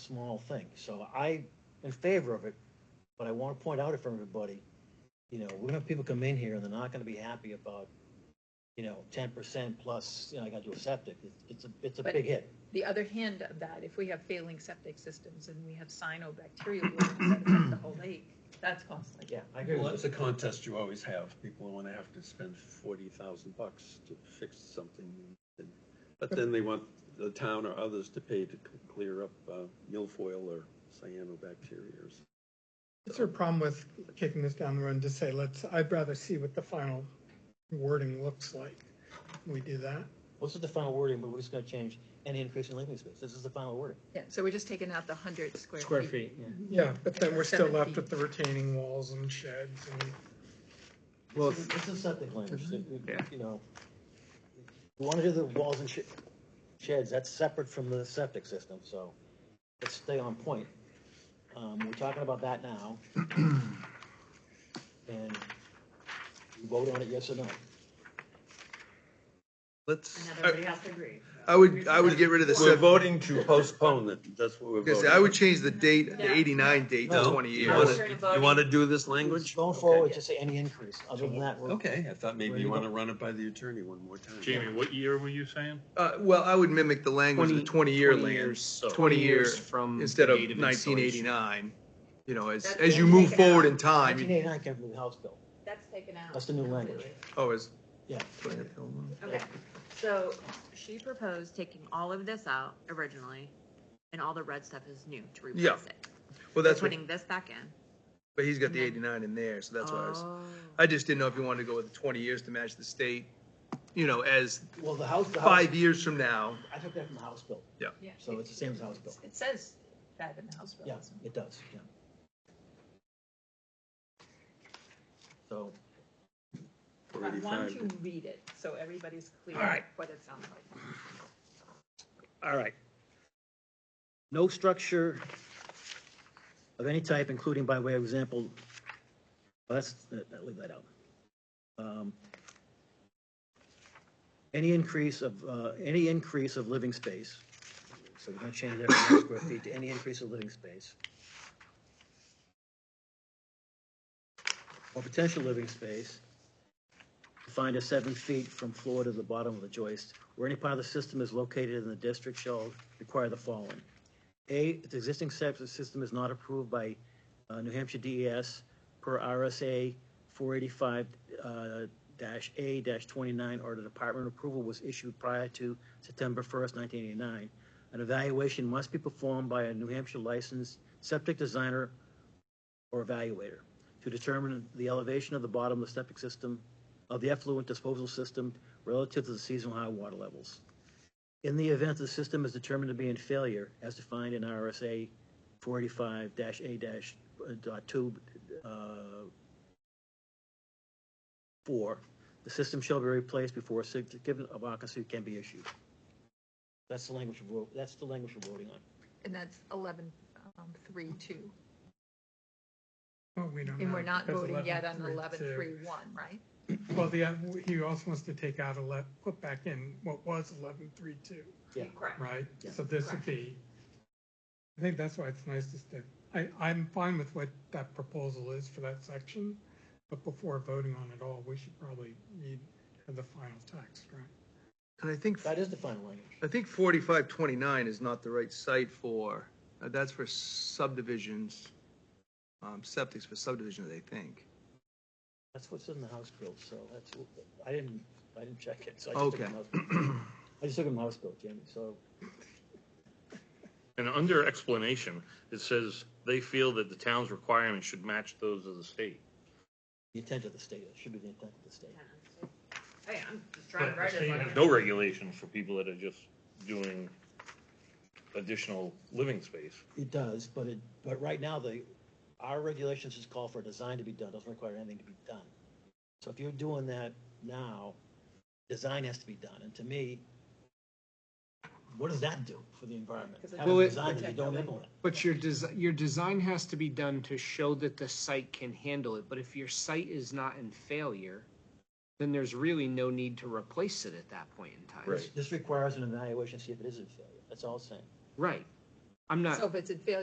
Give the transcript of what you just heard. small thing. So I, in favor of it, but I want to point out it for everybody, you know, we're gonna have people come in here and they're not gonna be happy about, you know, ten percent plus, you know, I gotta do a septic. It's, it's a, it's a But- big hit. The other hand of that, if we have failing septic systems and we have cyanobacteria blooms that affect the whole lake, that's costly. Yeah, I agree Well, with that's you. a contest you always have. People want to have to spend forty thousand bucks to fix something. and- But then they want the town or others to pay to c- clear up uh, milfoil or cyanobacteria. or s- Is there a problem with kicking this down the road and just say, let's, I'd rather see what the final wording looks like? Can We do that? This is the final wording, but we're just gonna change any increase in living space. This is the final wording. Yeah, so we're just taking out the hundred square feet. Square feet, yeah. Yeah, but then we're still left Seven with feet. the retaining walls and sheds and. Well, This is- This is septic language, that we- Yeah. you know. You wanna do the walls and sh- sheds, that's separate from the septic system, so let's stay on point. Um, we're talking about that now. And you vote on it, yes or no? Let's, And everybody has to agree. I would, I would get rid of the We're seven, voting to postpone it. That's what we're because voting. I would change the date, the Yeah. eighty-nine date to No, twenty you Yeah, years. we're wanna- voting. You want to do this language? Going forward, just say any increase, other than that, we're. Okay, I thought maybe Where you you want to run it by the attorney one more time. Jamie, what year were you saying? Uh, well, I would mimic the language of the 20 twenty-year 20 land, years- twenty year, from the instead of date nineteen installation. eighty-nine. You know, as, That's as you what we move take forward out. in time, Nineteen you- eighty-nine came from the House bill. That's taken out. That's the new language. oh, is. Yeah. Okay, so she proposed taking all of this out originally, and all the red stuff is new to Yeah, replace it. Well, that's what, Putting this back in. but he's got the Yeah. eighty-nine in there, so that's why I was, Oh. I just didn't know if you wanted to go with the twenty years to match the state. You know, as Well, the House, the House, five years from now, I took that from the House bill, Yeah. so it's the same as the House bill. It says that in the House bill. Yeah, doesn't it? it does, yeah. So, I want 45. to read it, so everybody's clear All right. what it sounds like. All right, no structure of any type, including by way of example, well, that's, that- leave that out. Um, Any increase of, uh, any increase of living space, so we're gonna change that from square feet to any increase of living space. Or potential living space, defined as seven feet from floor to the bottom of the joist, where any part of the system is located in the district shall require the following. A, the existing septic system is not approved by uh, New Hampshire DES per RSA 485 uh, dash A dash 29, or the department approval was issued prior to September 1st, 1989. An evaluation must be performed by a New Hampshire licensed septic designer or evaluator to determine the elevation of the bottom of the septic system, of the effluent disposal system relative to the seasonal high water levels. In the event the system is determined to be in failure, as defined in RSA four eighty-five dash A dash dot two, uh, four, the system shall be replaced before a certificate of occupancy can be issued. That's the language we're, that's the language we're voting on. And that's eleven, um, three, two. Well, we don't And know, we're not because voting yet on 11.3, eleven, too. three, one, right? Well, the, uh, he also wants to take out ele, put back in what was eleven three two, Yeah. Correct. right? Yeah. So this would be, I think that's why it's nice to stay, I, I'm fine with what that proposal is for that section. But before voting on it all, we should probably read the final text, right? and I think That is the final language. I think forty-five twenty-nine is not the right site for, uh, that's for subdivisions, um, septics for subdivisions, I think. That's what's in the House bill, so that's, I didn't, I didn't check it, so I just took it Okay. from House bill. I just took it from House bill, Jamie, so And under explanation, it says they feel that the town's requirements should match those of the state. the intent of the state, it should be the intent of the state. Hey, I'm just trying to write it. like- No regulations for people that are just doing additional living space. It does, but it, but right now, the, our regulations just call for a design to be done, doesn't require anything to be done. So if you're doing that now, design has to be done, and to me, what does that do for the environment? 'Cause it Having Well, it- design that you don't implement. but your design, your design has to be done to show that the site can handle it, but if your site is not in failure, then there's really no need to replace it at that point in time. Right. This requires an evaluation, to see if it is a failure, that's all I'm saying. Right. I'm not. So if it's a failure